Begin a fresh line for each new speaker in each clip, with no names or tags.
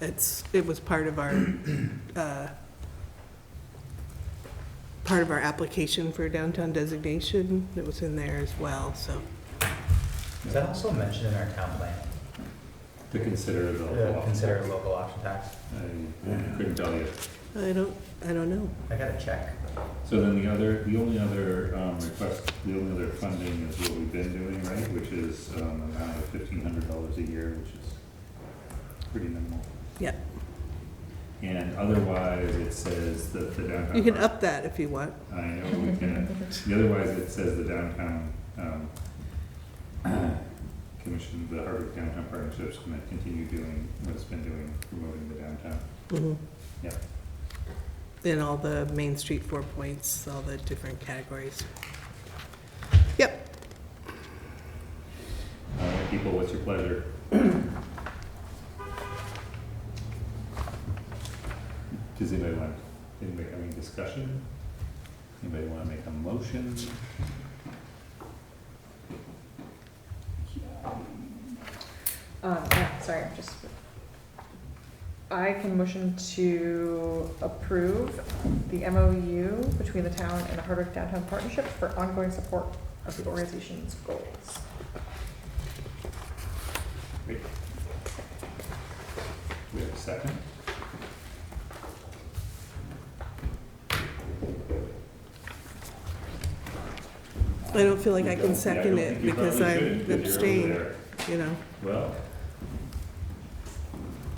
it's, it was part of our, uh, part of our application for downtown designation. It was in there as well, so.
Is that also mentioned in our town plan?
To consider it a
To
law.
Consider a local option tax?
I couldn't tell you.
I don't, I don't know.
I gotta check.
So then the other, the only other um, request, the only other funding is what we've been doing, right? Which is um, an amount of fifteen hundred dollars a year, which is pretty minimal.
Yeah.
And otherwise, it says that the downtown.
You can up that if you want.
I know we can. The otherwise, it says the downtown, um, commission, the Harvard Downtown Partnership's gonna continue doing what it's been doing, promoting the downtown.
Mm-hmm.
Mhm.
Yeah.
Then all the Main Street Four Points, all the different categories. Yep,
All right, Uh, people, what's your pleasure? Does anybody want, anybody have any discussion? Anybody wanna make a motion?
Um, yeah, sorry, I'm just. I can motion to approve the MOU between the town and the Hardwick Downtown Partnership for ongoing support of the organization's goals.
Wait. We have a second?
I don't feel like I
Yeah, don't
can second
think
it
you
because
probably
I'm
should, 'cause you're over
abstaining,
there.
you know.
Well.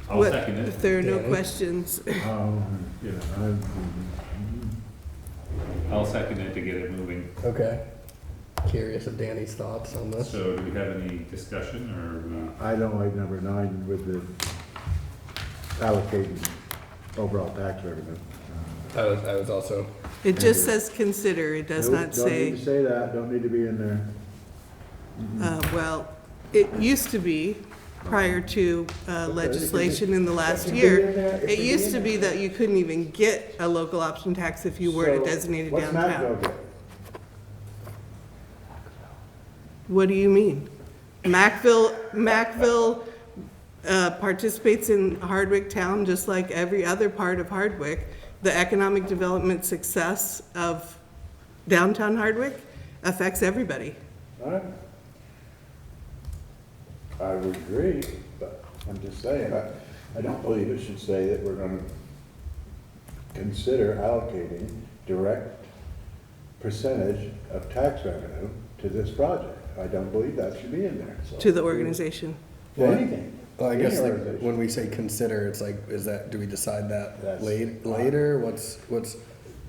I'll
What- Oh,
second it.
If there are no
Yeah.
questions,
Um, yeah, I- I'll second it to get it moving.
Okay. Curious of Danny's thoughts on this.
So do we have any discussion or? uh,
I don't like number nine with the allocating overall tax revenue.
I was, I was also.
it just says consider, it does
Nope,
not
Don't need
say,
to say that, don't need to be in there.
uh, well, it used to be, prior to uh, legislation in the last year, it used to be that you couldn't even get a local option tax if you were a designated
What's Matt go
downtown.
get?
What do you mean? Macville, Macville uh, participates in Hardwick Town just like every other part of Hardwick. The economic development success of downtown Hardwick affects everybody.
All right. I would agree, but I'm just saying, I, I don't believe it should say that we're gonna consider allocating direct percentage of tax revenue to this project. I don't believe that should be in there, so.
to the organization.
To anything.
Well, I guess
Any
like
organization.
when we say consider, it's like, is that, do we decide that
That's-
late, later? What's, what's,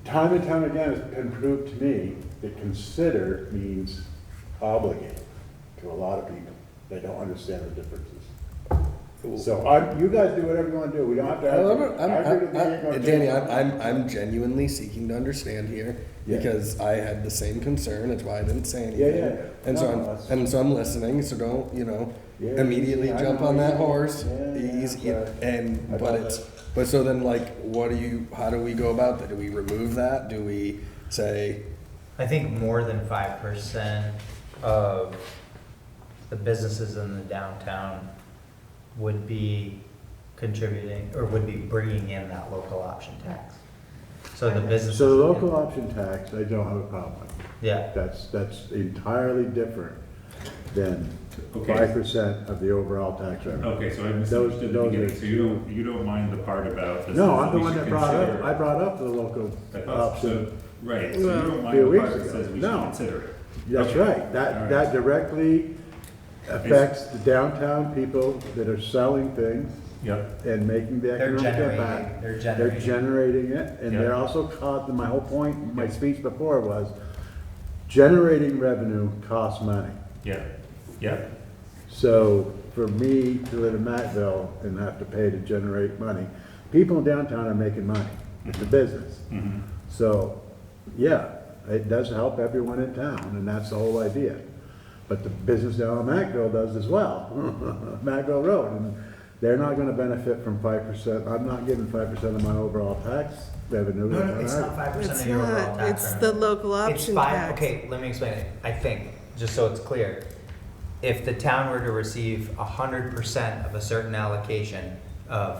Time and time again, it's been proved to me that consider means obligate to a lot of people. They don't understand the differences. So I, you guys do whatever you wanna do, we don't have to.
I don't
argue.
know. I'm,
I agree with
I'm,
you, you're gonna
I'm, Danny,
change
I'm,
my mind.
I'm, I'm genuinely seeking to understand here
Yeah.
because I had the same concern. That's why I didn't say anything.
Yeah, yeah, yeah.
And so
No,
I'm,
that's-
and so I'm listening. So don't, you know,
Yeah,
immediately
yeah, I
jump
know.
on that horse.
Yeah, yeah,
Easy-
yeah.
And,
I
but
got
it's,
that.
but so then like, what do you, how do we go about that? Do we remove that? Do we say,
I think more than five percent of the businesses in the downtown would be contributing, or would be bringing in that local option tax. So the businesses.
So the local option tax, I don't have a problem with.
Yeah,
That's, that's entirely different than
Okay.
five percent of the overall tax revenue.
Okay, so I
Those-
misunderstood the
those
beginning,
are-
so you don't, you don't mind the part about Oh, this?
No,
is
I'm the
we
one
should
that brought up,
consider-
I brought up the local
I thought so.
option.
Right, so you
Well,
don't
few
mind the part
weeks
that
ago.
says we should
No.
consider it?
That's
Okay.
right,
All
that,
right.
that directly affects the downtown people that are selling things
Yep,
and making the
They're
economic
generating-
impact.
they're generating.
generating it, and they're
Yeah.
also caught, my whole point, my speech before was, generating revenue costs money.
yeah, yeah,
So for me to live in Mattville and have to pay to generate money, people in downtown are making money. It's a business. So, yeah, it does help everyone in town, and that's the whole idea. But the business down on Mattville does as well, Mattville Road, and they're not gonna benefit from five percent. I'm not giving five percent of my overall tax revenue.
no, no, it's not five percent
It's
of your overall
not,
tax.
it's the
revenue.
local
It's
option
five,
tax.
okay, let me explain it, I think, just so it's clear. If the town were to receive a hundred percent of a certain allocation of